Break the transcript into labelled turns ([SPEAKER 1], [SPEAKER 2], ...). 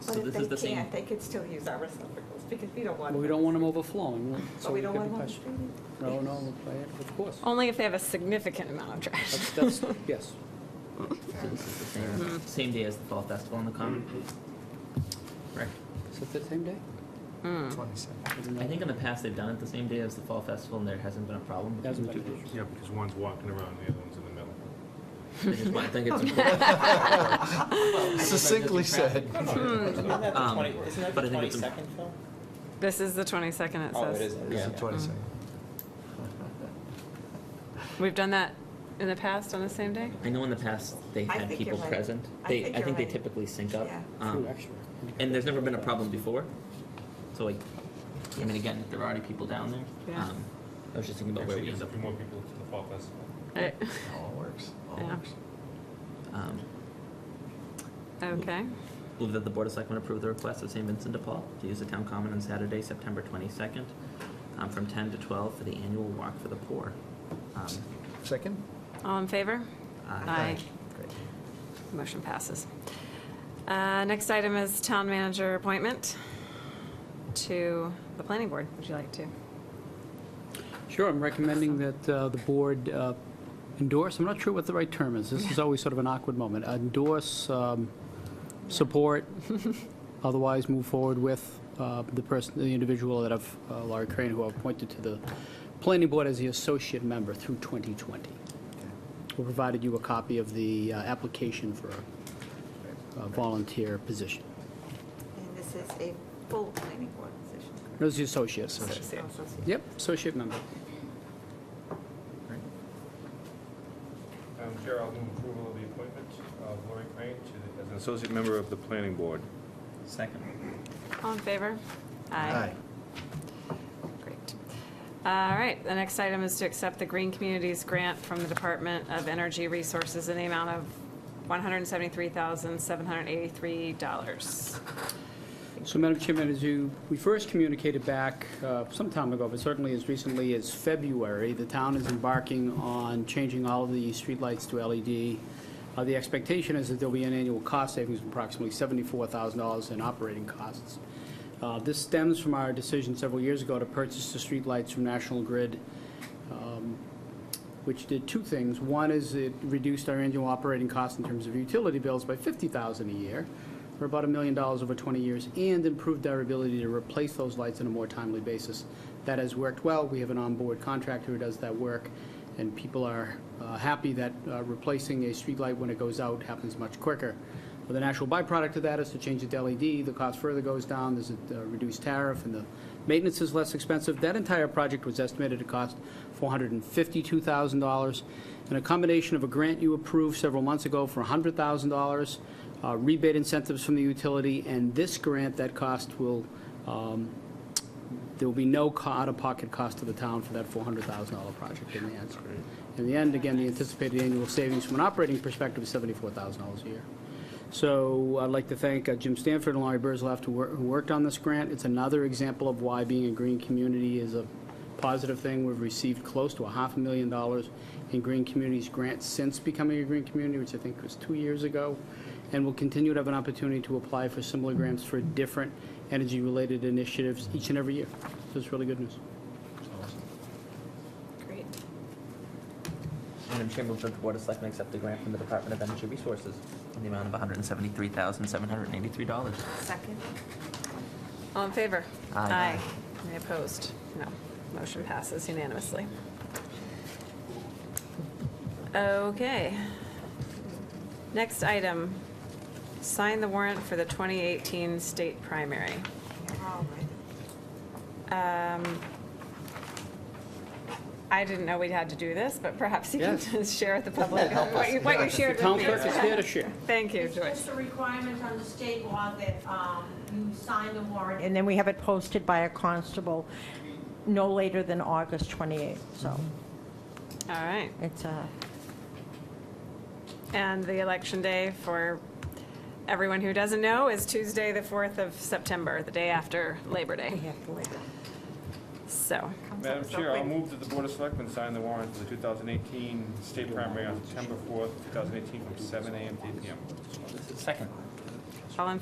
[SPEAKER 1] So
[SPEAKER 2] But if
[SPEAKER 1] this is the
[SPEAKER 2] they
[SPEAKER 1] same.
[SPEAKER 2] can't, they could still use our receptacles, because we don't want.
[SPEAKER 3] But we don't want them overflowing, so
[SPEAKER 2] But we
[SPEAKER 3] we
[SPEAKER 2] don't
[SPEAKER 3] could be
[SPEAKER 2] want
[SPEAKER 3] questioned.
[SPEAKER 2] them.
[SPEAKER 3] No, no, we'll play it, of course.
[SPEAKER 4] Only if they have a significant amount of trash.
[SPEAKER 3] That's- That's, yes.
[SPEAKER 1] Same- Same day as the Fall Festival in the Common. Right.
[SPEAKER 3] Is it the same day?
[SPEAKER 4] Hmm.
[SPEAKER 5] Twenty-seven.
[SPEAKER 1] I think in the past they've done it the same day as the Fall Festival and there hasn't been a problem. because
[SPEAKER 3] Hasn't
[SPEAKER 1] we
[SPEAKER 3] been an
[SPEAKER 1] do-
[SPEAKER 6] Yeah, because one's walking around, the other one's in the middle.
[SPEAKER 1] They just want, I think it's.
[SPEAKER 5] Succinctly said.
[SPEAKER 7] Hmm.
[SPEAKER 6] It's
[SPEAKER 7] Isn't that the
[SPEAKER 1] Um,
[SPEAKER 7] 20, isn't that
[SPEAKER 1] but
[SPEAKER 7] the
[SPEAKER 1] I think it's-
[SPEAKER 7] 22nd, Phil?
[SPEAKER 4] This is the 22nd, it
[SPEAKER 7] Oh, it
[SPEAKER 4] says.
[SPEAKER 7] is.
[SPEAKER 1] Yeah.
[SPEAKER 7] Yeah.
[SPEAKER 5] Twenty-seven.
[SPEAKER 4] We've done that in the past on the same day?
[SPEAKER 1] I know in the past they
[SPEAKER 2] I
[SPEAKER 1] had
[SPEAKER 2] think you're
[SPEAKER 1] people
[SPEAKER 2] right.
[SPEAKER 1] present.
[SPEAKER 2] I
[SPEAKER 1] They,
[SPEAKER 2] think
[SPEAKER 1] I
[SPEAKER 2] you're
[SPEAKER 1] think they
[SPEAKER 2] right.
[SPEAKER 1] typically sync up.
[SPEAKER 2] Yeah.
[SPEAKER 1] Um,
[SPEAKER 3] True, actually.
[SPEAKER 1] And there's never been a problem before. So like, I mean, again, if there are already people down there.
[SPEAKER 4] Yeah.
[SPEAKER 1] um, I was just thinking about where
[SPEAKER 6] Actually,
[SPEAKER 1] we end
[SPEAKER 6] gets a
[SPEAKER 1] up.
[SPEAKER 6] few more people to the Fall Festival.
[SPEAKER 4] I-
[SPEAKER 5] All works, all
[SPEAKER 4] Yeah.
[SPEAKER 5] works.
[SPEAKER 1] Um,
[SPEAKER 4] Okay.
[SPEAKER 1] Move that the Board of Selectmen approve the request of St. Vincent de Paul to use the town common on Saturday, September 22nd, um, from 10 to 12 for the annual Walk for the Poor. Um,
[SPEAKER 5] Second?
[SPEAKER 4] All in favor?
[SPEAKER 1] I-
[SPEAKER 5] Great.
[SPEAKER 4] Motion passes. Uh, Next item is town manager appointment to the planning board. Would you like to?
[SPEAKER 3] Sure, I'm recommending that uh, the board uh, endorse, I'm not sure what the right term is, this is always sort of an awkward moment, endorse, um, support, otherwise move forward with uh, the person, the individual that I've, uh, Laurie Crane, who I've appointed to the planning board as the associate member through 2020. We provided you a copy of the uh, application for a volunteer position.
[SPEAKER 2] And this is a full planning board position.
[SPEAKER 3] No, it's the associate.
[SPEAKER 4] Associate.
[SPEAKER 3] Yep, associate member.
[SPEAKER 6] Madam Um, Chair, I'll move approval of the appointment of Lori Crane to the, as an associate member of the planning board.
[SPEAKER 1] Second.
[SPEAKER 4] All in favor? Great. All right, the next item is to accept the Green Communities Grant from the Department of Energy Resources in the amount of $173,783.
[SPEAKER 3] So, Madam Chairman, as you, we first communicated back uh, some time ago, but certainly as recently as February, the town is embarking on changing all of the streetlights to LED. Uh, The expectation is that there'll be an annual cost savings of approximately $74,000 in operating costs. Uh, This stems from our decision several years ago to purchase the streetlights from National Grid which did two things. One is it reduced our annual operating costs in terms of utility bills by $50,000 a year, for about a million dollars over 20 years, and improved our ability to replace those lights on a more timely basis. That has worked well. We have an onboard contractor who does that work, and people are uh, happy that uh, replacing a streetlight when it goes out happens much quicker. But the natural byproduct of that is to change it to LED, the cost further goes down, there's a uh, reduced tariff, and the maintenance is less expensive. That entire project was estimated to cost $452,000, and a combination of a grant you approved several months ago for $100,000, uh, rebate incentives from the utility, and this grant, that cost will, um, there will be no co- out-of-pocket cost to the town for that $400,000 project in the end. In the end, again, the anticipated annual savings from an operating perspective is $74,000 a year. So I'd like to thank uh, Jim Stanford and Laurie Burzloff who wor- who worked on this grant. It's another example of why being a green community is a positive thing. We've received close to a half a million dollars in green communities grants since becoming a green community, which I think was two years ago, and will continue to have an opportunity to apply for similar grants for different energy-related initiatives each and every year. So it's really good news.
[SPEAKER 4] Great.
[SPEAKER 1] Madam Chair, move that the Board of Selectmen accept the grant from the Department of Energy Resources in the amount of $173,783.
[SPEAKER 2] Second?
[SPEAKER 4] All in favor?
[SPEAKER 1] Aye.
[SPEAKER 4] Any opposed? No. Motion passes unanimously. Okay. Next item, sign the warrant for the 2018 state primary.
[SPEAKER 2] All right.
[SPEAKER 4] Um, I didn't know we had to do this, but perhaps you can
[SPEAKER 3] Yes.
[SPEAKER 4] just share with the public what you- what you shared
[SPEAKER 3] Town
[SPEAKER 4] with
[SPEAKER 3] clerk is
[SPEAKER 4] me.
[SPEAKER 3] here to share.
[SPEAKER 4] Thank you,
[SPEAKER 8] It's
[SPEAKER 4] Joyce.
[SPEAKER 8] just a requirement under state law that um, you sign the warrant, and then we have it posted by a constable no later than August 28th, so
[SPEAKER 4] All right.
[SPEAKER 8] it's uh, a,
[SPEAKER 4] And the election day, for everyone who doesn't know, is Tuesday, the 4th of September, the day after Labor
[SPEAKER 8] we
[SPEAKER 4] Day.
[SPEAKER 8] have to wait.
[SPEAKER 4] So,
[SPEAKER 2] Comes up
[SPEAKER 6] Madam
[SPEAKER 2] so
[SPEAKER 6] Chair, I'll
[SPEAKER 2] quick.
[SPEAKER 6] move that the Board of Selectmen sign the warrant for the 2018 state primary on September 4th, 2018, from 7 a.m. to 8 p.m.
[SPEAKER 1] Second.
[SPEAKER 4] all in